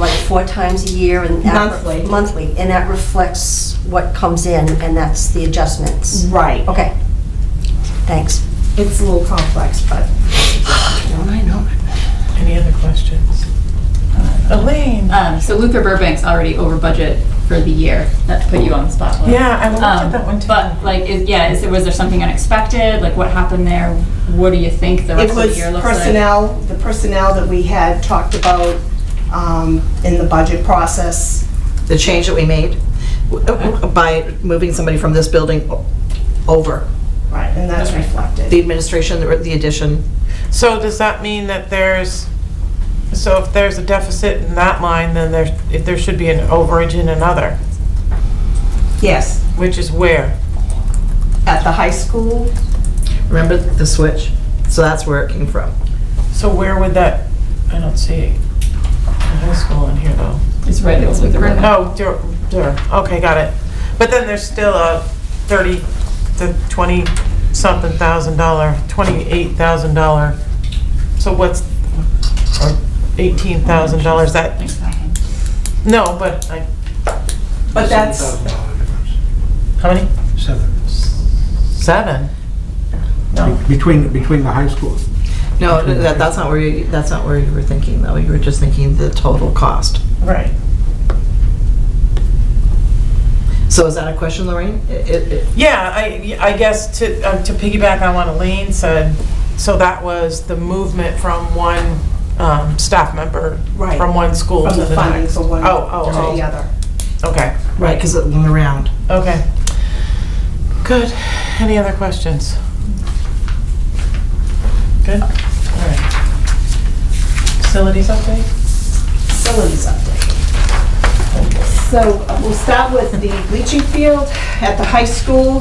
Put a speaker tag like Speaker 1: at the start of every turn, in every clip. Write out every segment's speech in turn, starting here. Speaker 1: four times a year and... that-
Speaker 2: Monthly.
Speaker 1: Monthly, and that reflects what comes in, and that's the adjustments.
Speaker 2: Right.
Speaker 1: Okay, thanks.
Speaker 2: It's a little complex, but.
Speaker 1: I know.
Speaker 3: Any other questions? Elaine?
Speaker 4: Um, so Luther Burbank's already over budget for the year. Not to put you on the spot. Lou.
Speaker 3: Yeah, I looked at
Speaker 4: Um,
Speaker 3: that one too.
Speaker 4: But like, is, yeah, is, was there something unexpected? Like, what happened there? What do you think the rest
Speaker 2: It
Speaker 4: of the
Speaker 2: was
Speaker 4: year looks like?
Speaker 2: personnel, the personnel that we had talked about um, in the budget process.
Speaker 5: the change that we made w- by moving somebody from this building o- over,
Speaker 2: Right. And that's
Speaker 4: Okay.
Speaker 2: reflected.
Speaker 5: the administration, the the addition.
Speaker 3: So does that mean that there's, so if there's a deficit in that line, then there, if there should be an overage in another,
Speaker 2: Yes,
Speaker 3: which is where?
Speaker 2: at the high school,
Speaker 5: Remember the switch? So that's where it came from.
Speaker 3: So where would that, I don't see the high school in here though.
Speaker 4: It's right. It was Luther Burbank.
Speaker 3: Oh, dur, dur, okay, got it. But then there's still a 30 to 20 something thousand dollar, 28,000 dollar, so what's, or 18,000 dollars that,
Speaker 4: Thanks, Malcolm.
Speaker 3: no, but I,
Speaker 2: but that's,
Speaker 3: how many?
Speaker 6: Seven.
Speaker 3: Seven? No.
Speaker 6: Between, between the high school.
Speaker 5: No, that, that's not where you, that's not where you were thinking though. You were just thinking the total cost.
Speaker 3: Right.
Speaker 5: So is that a question, Lorraine? It- it- it-
Speaker 3: Yeah, I, I guess to, um, to piggyback on what Elaine said, so that was the movement from one, um, staff member,
Speaker 2: Right.
Speaker 3: from one school
Speaker 2: from
Speaker 3: to
Speaker 2: the
Speaker 3: the
Speaker 2: funding
Speaker 3: next.
Speaker 2: for one
Speaker 3: Oh, oh,
Speaker 2: to the
Speaker 3: oh.
Speaker 2: other.
Speaker 3: Okay,
Speaker 5: Right, because it went around.
Speaker 3: okay. Good. Any other questions? Good? All right. Facilities update?
Speaker 2: facilities update. So uh, we'll start with the bleaching field at the high school.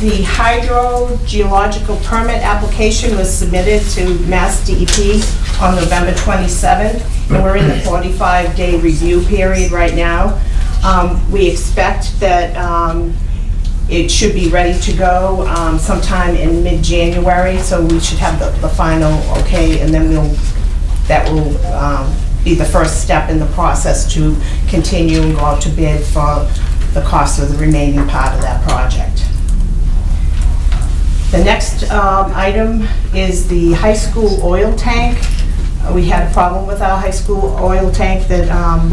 Speaker 2: The hydrogeological permit application was submitted to Mass DEP on November 27th, and we're in the 45-day review period right now. Um, We expect that um, it should be ready to go um, sometime in mid-January, so we should have the the final okay, and then we'll that will um, be the first step in the process to continue and go out to bid for the cost of the remaining part of that project. The next um, item is the high school oil tank. Uh, We had a problem with our high school oil tank that um,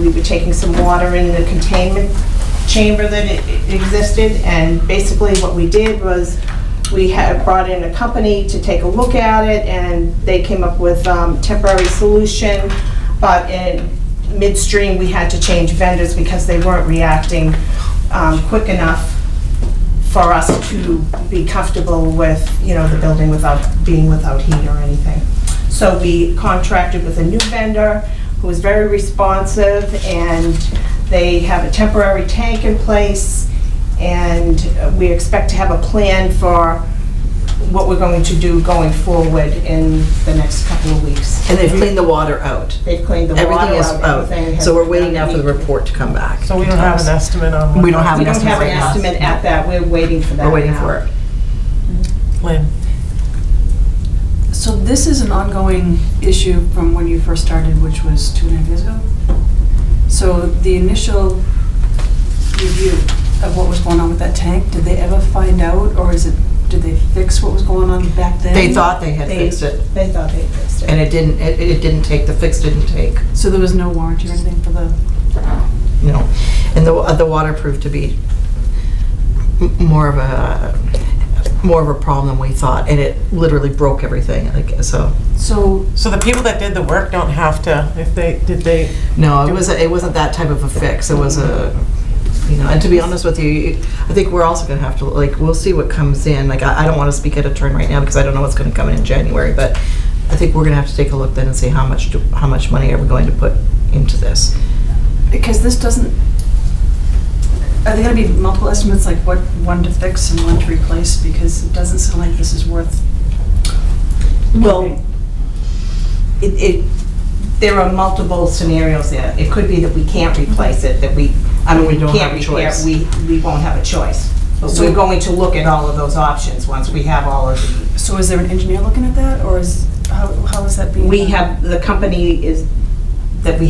Speaker 2: we were taking some water in the containment chamber that it- it existed, and basically what we did was we had brought in a company to take a look at it, and they came up with um, temporary solution, but in midstream, we had to change vendors because they weren't reacting um, quick enough for us to be comfortable with, you know, the building without, being without heat or anything. So we contracted with a new vendor who was very responsive, and they have a temporary tank in place, and we expect to have a plan for what we're going to do going forward in the next couple of weeks.
Speaker 5: And they've cleaned the water out.
Speaker 2: They've cleaned the water out.
Speaker 5: Everything is
Speaker 2: everything
Speaker 5: out.
Speaker 2: has
Speaker 5: So we're waiting now for the
Speaker 2: been-
Speaker 5: report to come back.
Speaker 3: So we don't have an estimate on. when
Speaker 5: We don't have
Speaker 2: We
Speaker 5: an
Speaker 2: don't
Speaker 5: estimate
Speaker 2: have an
Speaker 5: right now.
Speaker 2: estimate at that, we're waiting for that
Speaker 5: We're waiting
Speaker 2: now.
Speaker 5: for it.
Speaker 3: Lynn,
Speaker 7: So this is an ongoing issue from when you first started, which was two and a half years ago? So the initial review of what was going on with that tank, did they ever find out, or is it, did they fix what was going on back then?
Speaker 5: They thought they had
Speaker 2: They-
Speaker 5: fixed it
Speaker 2: They thought they fixed it.
Speaker 5: and it didn't, it, it didn't take, the fix didn't take.
Speaker 7: So there was no warranty or anything for the,
Speaker 5: No, and the, uh, the water proved to be m- more of a, more of a problem than we thought, and it literally broke everything, like, so,
Speaker 7: so,
Speaker 3: so the people that did the work don't have to, if they, did they,
Speaker 5: no, it wasn't, it wasn't that type of a fix, it was a, you know, and to be honest with you, I think we're also gonna have to, like, we'll see what comes in, like, I, I don't wanna speak at a turn right now, because I don't know what's gonna come in in January, but I think we're gonna have to take a look then and see how much, do- how much money are we going to put into this.
Speaker 7: because this doesn't, are there gonna be multiple estimates, like what, one to fix and one to replace? Because it doesn't sound like this is worth
Speaker 2: Well, it, it, there are multiple scenarios there. It could be that we can't replace it, that we, I mean,
Speaker 5: We
Speaker 2: we
Speaker 5: don't
Speaker 2: can't
Speaker 5: have a
Speaker 2: repair,
Speaker 5: choice.
Speaker 2: we, we won't have a choice. But we're going to look at all of those options once we have all of the,
Speaker 7: So is there an engineer looking at that, or is, how, how is that being?
Speaker 2: we
Speaker 7: done?
Speaker 2: have, the company is, that we